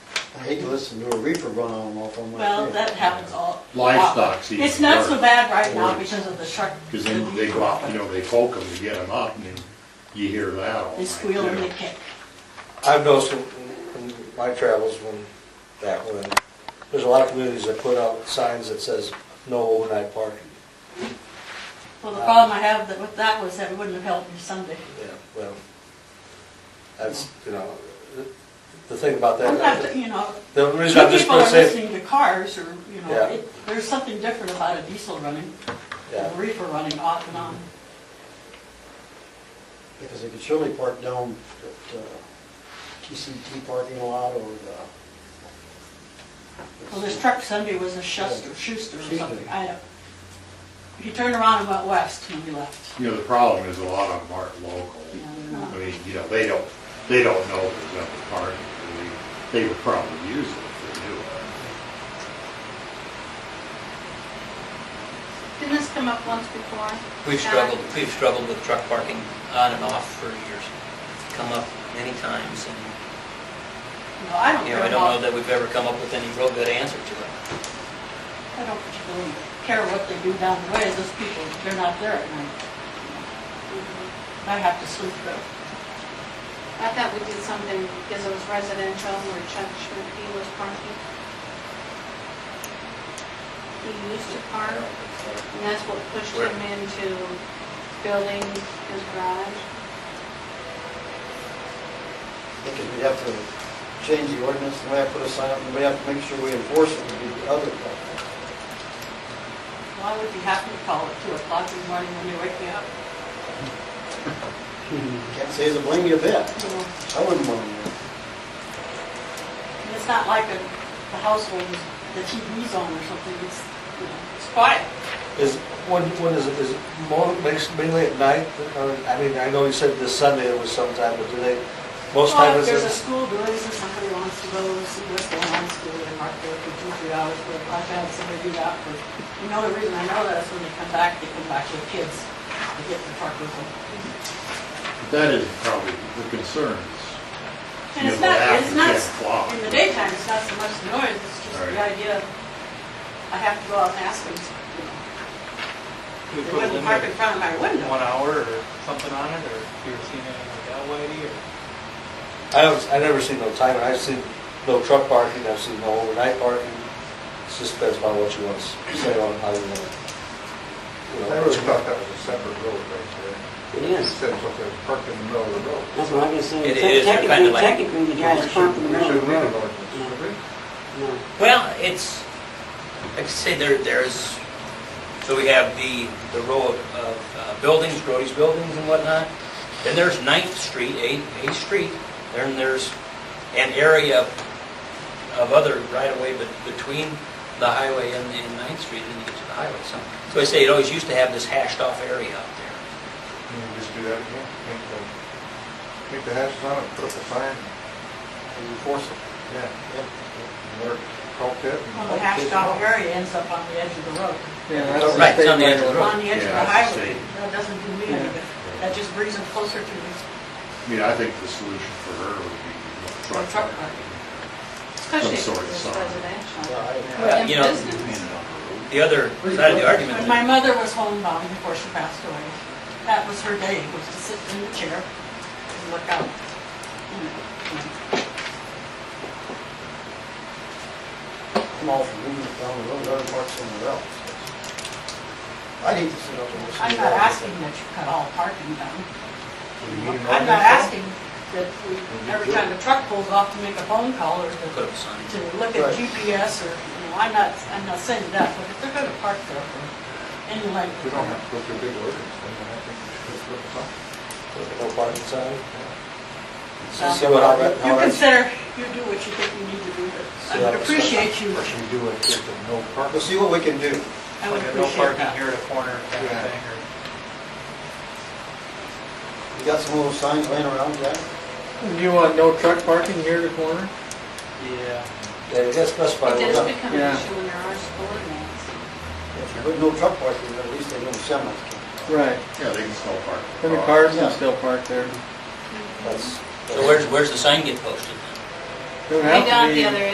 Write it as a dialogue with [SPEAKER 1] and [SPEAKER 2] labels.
[SPEAKER 1] I hate to listen to a reefer run on off on my.
[SPEAKER 2] Well,
[SPEAKER 1] field.
[SPEAKER 2] that happens all.
[SPEAKER 3] Livestock's even
[SPEAKER 2] It's not so
[SPEAKER 3] worse.
[SPEAKER 2] bad right now
[SPEAKER 3] Worse.
[SPEAKER 2] because of the truck.
[SPEAKER 3] Because then they go out, you know, they poke them to get them up, and then you hear that all night.
[SPEAKER 2] They squeal and
[SPEAKER 3] too.
[SPEAKER 2] they kick.
[SPEAKER 4] I've noticed in in my travels when, back when, there's a lot of communities that put out signs that says, no overnight parking.
[SPEAKER 2] Well, the problem I have that- with that was that it wouldn't have helped me Sunday.
[SPEAKER 4] Yeah, well, that's, you know, the- the thing about
[SPEAKER 2] I'm not,
[SPEAKER 4] that,
[SPEAKER 2] you know,
[SPEAKER 4] the
[SPEAKER 2] two
[SPEAKER 4] reason I'm just
[SPEAKER 2] people
[SPEAKER 4] gonna
[SPEAKER 2] are
[SPEAKER 4] say,
[SPEAKER 2] listening to cars or, you know,
[SPEAKER 4] Yeah.
[SPEAKER 2] it- there's something different about a diesel running,
[SPEAKER 4] yeah,
[SPEAKER 2] a reefer running off and on.
[SPEAKER 1] Because they could surely park down at uh, TCT parking lot or the.
[SPEAKER 2] Well, this truck Sunday was a Schuster, Schuster or
[SPEAKER 1] Schuster.
[SPEAKER 2] something, I don't. He turned around and went west when we left.
[SPEAKER 3] You know, the problem is a lot of them aren't local.
[SPEAKER 2] You know, they're
[SPEAKER 3] I
[SPEAKER 2] not-
[SPEAKER 3] mean, you know, they don't, they don't know there's another park. They- They would probably use it if they knew it.
[SPEAKER 5] Didn't this come up once before?
[SPEAKER 6] We've
[SPEAKER 5] Alan?
[SPEAKER 6] struggled, we've struggled with truck parking on and off for years. It's Come up many times, and,
[SPEAKER 2] No, I don't
[SPEAKER 6] you
[SPEAKER 2] care
[SPEAKER 6] know, I don't know
[SPEAKER 2] about,
[SPEAKER 6] that we've ever come up with any real good answer to it.
[SPEAKER 2] I don't particularly care what they do down the way, those people, they're not there at night. I have to sleep though.
[SPEAKER 5] Mm-hmm. I thought we did something because it was residential where Chuck Schmidt was parking. He used to park, and that's what pushed him into building his garage.
[SPEAKER 1] Because we'd have to change the ordinance, and we have to put a sign up, and we have to make sure we enforce it would be the other part.
[SPEAKER 2] Well, I would be happy to call at two o'clock in the morning when they wake me up,
[SPEAKER 1] Can't say it's a blame you a bit.
[SPEAKER 2] you know.
[SPEAKER 1] I wouldn't want to.
[SPEAKER 2] And It's not like a, the household, is the TV's on or something, it's, you know, it's quiet.
[SPEAKER 4] is, when, when is it, is it more, makes, mainly at night? Or, I mean, I know you said this Sunday it was sometime, but do they, most
[SPEAKER 2] Well,
[SPEAKER 4] time
[SPEAKER 2] if
[SPEAKER 4] is
[SPEAKER 2] there's a
[SPEAKER 4] it?
[SPEAKER 2] school doings and somebody wants to go see what's going on in school and mark there for two, three hours, but I've had somebody do that for, you know, the reason I know that is when they come back, they come back with kids, they get in the truck with them.
[SPEAKER 3] But that is probably the concern. is,
[SPEAKER 2] And
[SPEAKER 3] you
[SPEAKER 2] it's
[SPEAKER 3] know,
[SPEAKER 2] not,
[SPEAKER 3] after
[SPEAKER 2] it's not,
[SPEAKER 3] 10 o'clock.
[SPEAKER 2] in the daytime, it's not so much the noise, it's just the
[SPEAKER 3] Right.
[SPEAKER 2] idea, of I have to go out and ask them, you know, they
[SPEAKER 7] We put a
[SPEAKER 2] wouldn't park in
[SPEAKER 7] limit
[SPEAKER 2] front of my
[SPEAKER 7] of
[SPEAKER 2] window.
[SPEAKER 7] one hour or something on it, or if you ever seen anything like that, Whitey, or
[SPEAKER 4] I don't, I never seen no time, I've seen no truck parking, I've seen no overnight parking. It just depends upon what you want to say on how you want to. you know,
[SPEAKER 8] I really thought that was a separate road right
[SPEAKER 9] It
[SPEAKER 8] there. You
[SPEAKER 9] is.
[SPEAKER 8] said something was parked in the middle of the road.
[SPEAKER 9] That's what I was saying.
[SPEAKER 6] It is
[SPEAKER 9] Technically-
[SPEAKER 6] kinda like-
[SPEAKER 9] Technically, the guy
[SPEAKER 8] We
[SPEAKER 9] is
[SPEAKER 8] should-
[SPEAKER 9] pumping the
[SPEAKER 8] We
[SPEAKER 9] road.
[SPEAKER 8] should need an ordinance, should
[SPEAKER 9] No.
[SPEAKER 8] we?
[SPEAKER 6] Well, it's, like I say, there, there's, so we have the, the road of uh, buildings, Grody's Buildings and whatnot. Then there's Ninth Street, Eighth, Eighth Street. Then there's an area of other right-of-way bet- between the highway and, and Ninth Street, and you get to the highway, so. So I say, it always used to have this hashed-off area out there.
[SPEAKER 8] Can you just do that again? Make the, make the hashes on it, put up a sign,
[SPEAKER 1] And enforce it.
[SPEAKER 8] yeah,
[SPEAKER 1] Yep.
[SPEAKER 8] and work, call it. and-
[SPEAKER 2] Well, the hashed out area ends up on the edge of the road.
[SPEAKER 6] that's Oh, Right, it's on the edge of the road.
[SPEAKER 2] on the edge of
[SPEAKER 3] Yeah,
[SPEAKER 2] the
[SPEAKER 3] I
[SPEAKER 2] highway,
[SPEAKER 3] see.
[SPEAKER 2] that doesn't do me any good. That just brings them closer to the
[SPEAKER 3] I mean, I think the solution for her would be
[SPEAKER 2] to the
[SPEAKER 3] truck
[SPEAKER 2] truck
[SPEAKER 3] parking.
[SPEAKER 2] park.
[SPEAKER 5] Especially if
[SPEAKER 3] sort of
[SPEAKER 5] it's
[SPEAKER 3] sign.
[SPEAKER 5] residential.
[SPEAKER 1] Yeah,
[SPEAKER 6] Well, you know, The other side of the argument.
[SPEAKER 2] When
[SPEAKER 6] is-
[SPEAKER 2] my mother was homebound before she passed away, that was her day, was to sit in the chair and look out.
[SPEAKER 1] I- I'm all for moving it down the road, other parks somewhere else. I'd hate to sit up and listen.
[SPEAKER 2] I'm
[SPEAKER 1] to
[SPEAKER 2] not
[SPEAKER 1] that.
[SPEAKER 2] asking that you cut all parking down.
[SPEAKER 8] Do you need an
[SPEAKER 2] I'm not
[SPEAKER 8] ordinance?
[SPEAKER 2] asking that we, every time the truck pulls off to make a phone call or to,
[SPEAKER 6] Put up signs.
[SPEAKER 2] to look at
[SPEAKER 1] Right.
[SPEAKER 2] GPS or, you know, I'm not, I'm not saying that, but if they're gonna park there for any length
[SPEAKER 8] We
[SPEAKER 2] of
[SPEAKER 8] don't
[SPEAKER 2] time.
[SPEAKER 8] have to go through big ordinance, then I think we should just put a sign.
[SPEAKER 4] No parking sign?
[SPEAKER 2] Um,
[SPEAKER 4] See what I read.
[SPEAKER 2] You consider, you do what you think you need to do, but I
[SPEAKER 4] Yeah,
[SPEAKER 2] would
[SPEAKER 4] that's-
[SPEAKER 2] appreciate you,
[SPEAKER 8] Or should we do it with the no parking?
[SPEAKER 1] We'll see what we can do.
[SPEAKER 2] I would
[SPEAKER 7] like a no
[SPEAKER 2] appreciate
[SPEAKER 7] parking
[SPEAKER 2] that.
[SPEAKER 7] here at a corner kind of
[SPEAKER 8] Yeah.
[SPEAKER 7] thing, or.
[SPEAKER 1] You got some little signs laying around, Jack?
[SPEAKER 10] You want no truck parking here at the corner?
[SPEAKER 7] Yeah.
[SPEAKER 4] Yeah, you gotta specify.
[SPEAKER 5] It
[SPEAKER 4] what-
[SPEAKER 5] does become an
[SPEAKER 10] Yeah.
[SPEAKER 5] issue when there are school events.
[SPEAKER 1] If you put no truck parking, at least they don't semi can.
[SPEAKER 10] Right.
[SPEAKER 3] Yeah, they can still park.
[SPEAKER 10] Then the cars can still park there.
[SPEAKER 4] That's.
[SPEAKER 6] So where's, where's the sign get posted then?
[SPEAKER 10] Don't have
[SPEAKER 5] Right
[SPEAKER 10] to
[SPEAKER 5] down at
[SPEAKER 10] be-
[SPEAKER 5] the other